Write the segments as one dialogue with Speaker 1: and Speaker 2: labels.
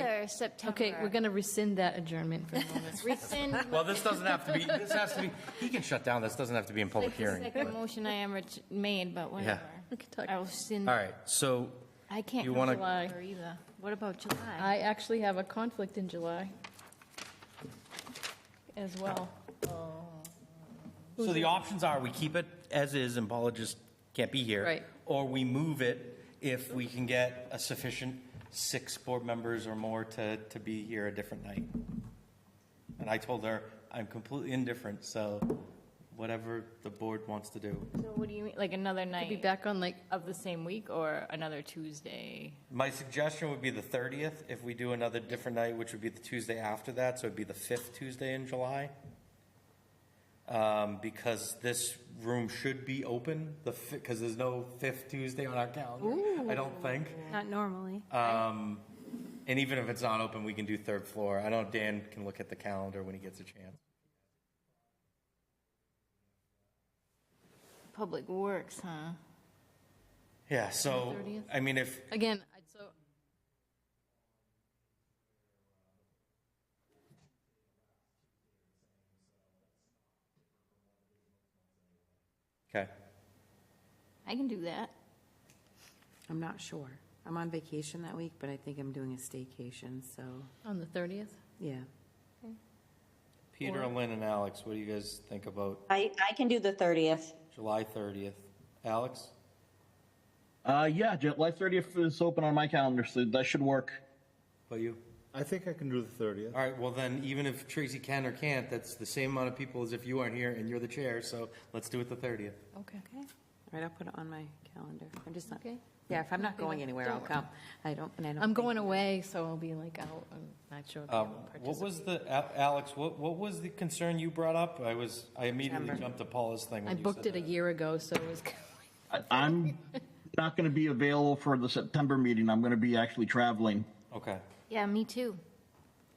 Speaker 1: for September.
Speaker 2: Okay, we're going to rescind that adjournment for a moment.
Speaker 1: Rescind.
Speaker 3: Well, this doesn't have to be, this has to be, he can shut down, this doesn't have to be in public
Speaker 1: Like the
Speaker 3: hearing.
Speaker 1: second motion I ever ch- made, but whatever.
Speaker 2: We can talk-
Speaker 1: I will rescind.
Speaker 3: All right, so
Speaker 1: I can't
Speaker 3: You
Speaker 1: do
Speaker 3: wanna-
Speaker 1: July either. What about July?
Speaker 2: I actually have a conflict in July as well.
Speaker 3: So the options are, we keep it as is, and Paula just can't be here.
Speaker 2: Right.
Speaker 3: Or we move it if we can get a sufficient six board members or more to, to be here a different night. And I told her, I'm completely indifferent, so whatever the board wants to do.
Speaker 1: So what do you mean, like another
Speaker 2: I'll be
Speaker 1: night
Speaker 2: back on like,
Speaker 1: of the same week or another Tuesday?
Speaker 3: My suggestion would be the 30th, if we do another different night, which would be the Tuesday after that, so it'd be the fifth Tuesday in July. Um, Because this room should be open, the, because there's no fifth Tuesday on our calendar, I don't think.
Speaker 4: Not normally.
Speaker 3: Um, And even if it's not open, we can do third floor. I know Dan can look at the calendar when he gets a chance.
Speaker 1: Public Works, huh?
Speaker 3: Yeah, so,
Speaker 2: 30th?
Speaker 3: I mean, if,
Speaker 2: again, I- so
Speaker 3: okay,
Speaker 1: I can do that.
Speaker 5: I'm not sure. I'm on vacation that week, but I think I'm doing a staycation, so,
Speaker 2: on the 30th,
Speaker 5: yeah.
Speaker 3: Peter, Lynn, and Alex, what do you guys think about
Speaker 6: I, I can do the 30th.
Speaker 3: July 30th? Alex?
Speaker 7: Uh, yeah, July 30th is open on my calendar, so that should work.
Speaker 3: What about you?
Speaker 8: I think I can do the 30th.
Speaker 3: All right, well then, even if Tracy can or can't, that's the same amount of people as if you aren't here and you're the chair, so let's do it the 30th.
Speaker 2: okay.
Speaker 5: All right, I'll put it on my calendar. I'm just not,
Speaker 2: Okay.
Speaker 5: yeah, if I'm not going anywhere, I'll come. I don't, and I don't.
Speaker 2: I'm
Speaker 5: think-
Speaker 2: going away, so I'll be like out, I'm not sure. if I will
Speaker 3: Um, Uh, What
Speaker 2: participate.
Speaker 3: was the, Al- Alex, what, what was the concern you brought up? I was, I immediately
Speaker 5: September.
Speaker 3: jumped to Paula's thing
Speaker 2: I
Speaker 3: when you
Speaker 2: booked
Speaker 3: said
Speaker 2: it a
Speaker 3: that.
Speaker 2: year ago, so it was,
Speaker 7: I- I'm not going to be available for the September meeting. I'm going to be actually traveling.
Speaker 3: Okay,
Speaker 1: Yeah, me too.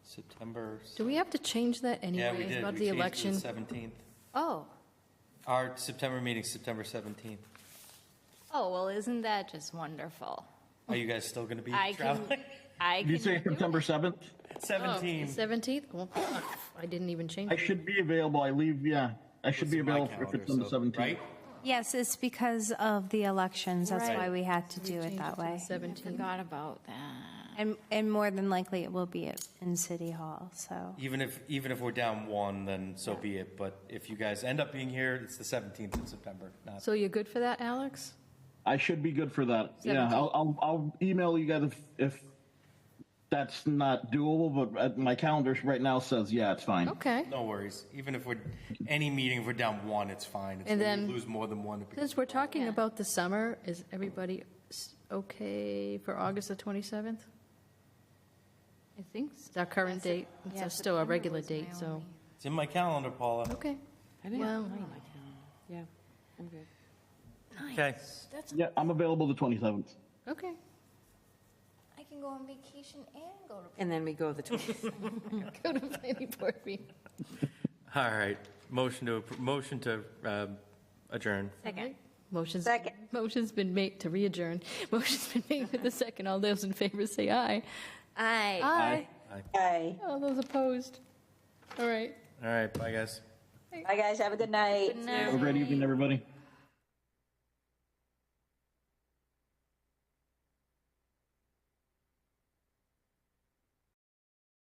Speaker 3: September, s-
Speaker 2: do we have to change that anyway?
Speaker 3: yeah, we did,
Speaker 2: About
Speaker 3: we
Speaker 2: the
Speaker 3: changed it
Speaker 2: election?
Speaker 3: to the 17th.
Speaker 1: Oh,
Speaker 3: Our September meeting's September 17th.
Speaker 1: oh, well, isn't that just wonderful?
Speaker 3: Are you guys still gonna be
Speaker 1: I can,
Speaker 3: traveling?
Speaker 1: I
Speaker 7: Did you
Speaker 1: can
Speaker 7: say
Speaker 1: do
Speaker 7: September 7th?
Speaker 2: Oh,
Speaker 3: 17th.
Speaker 2: 17th? Well, I didn't even change
Speaker 7: I
Speaker 2: it.
Speaker 7: should be available. I leave, yeah. I should
Speaker 3: It's
Speaker 7: be
Speaker 3: in my
Speaker 7: available if
Speaker 3: calendar,
Speaker 7: it's on the
Speaker 3: so-
Speaker 7: 17th.
Speaker 3: Right?
Speaker 4: Yes, it's because of the elections. That's
Speaker 1: Right.
Speaker 4: why we had to do it
Speaker 2: Change
Speaker 4: that
Speaker 2: to the
Speaker 4: way.
Speaker 2: 17th.
Speaker 1: Forgot about that.
Speaker 4: And, and more than likely, it will be at- in City Hall, so.
Speaker 3: Even if, even if we're down one, then so be it, but if you guys end up being here, it's the 17th of September, not
Speaker 2: So you're good for that, Alex?
Speaker 7: I should be good for that. Yeah, I'll, I'll, I'll email you guys if, if that's not doable, but uh, my calendar right now says, yeah, it's fine.
Speaker 2: Okay.
Speaker 3: No worries. Even if we're, any meeting, if we're down one, it's fine. It's
Speaker 2: And
Speaker 3: when
Speaker 2: then-
Speaker 3: you lose more than one. it becomes-
Speaker 2: Since we're talking about the summer, is everybody s- okay for August the 27th?
Speaker 1: I think so.
Speaker 2: It's our current
Speaker 1: Yeah,
Speaker 2: date,
Speaker 1: Sep- yeah,
Speaker 2: it's still our
Speaker 1: September
Speaker 2: regular
Speaker 1: was my
Speaker 2: date, so,
Speaker 1: only-
Speaker 3: It's in my calendar, Paula.
Speaker 2: okay.
Speaker 5: I didn't
Speaker 2: Well-
Speaker 5: have it on my calendar. Yeah, I'm good.
Speaker 3: Okay.
Speaker 7: Yeah, I'm available the 27th.
Speaker 2: Okay.
Speaker 1: I can go on vacation and go to.
Speaker 5: And then we go the 20th.
Speaker 2: Go to planning board meeting.
Speaker 3: All right. Motion to, appro- motion to um, adjourn.
Speaker 1: Second.
Speaker 2: Motion's,
Speaker 6: Second.
Speaker 2: motion's been made to re-adjourn. Motion's been made with the second. All those in favor say aye.
Speaker 1: I.
Speaker 2: Aye.
Speaker 6: Okay.
Speaker 2: All those opposed? All right.
Speaker 3: All right. Bye, guys.
Speaker 6: Bye, guys. Have a good night.
Speaker 7: Have a great evening, everybody.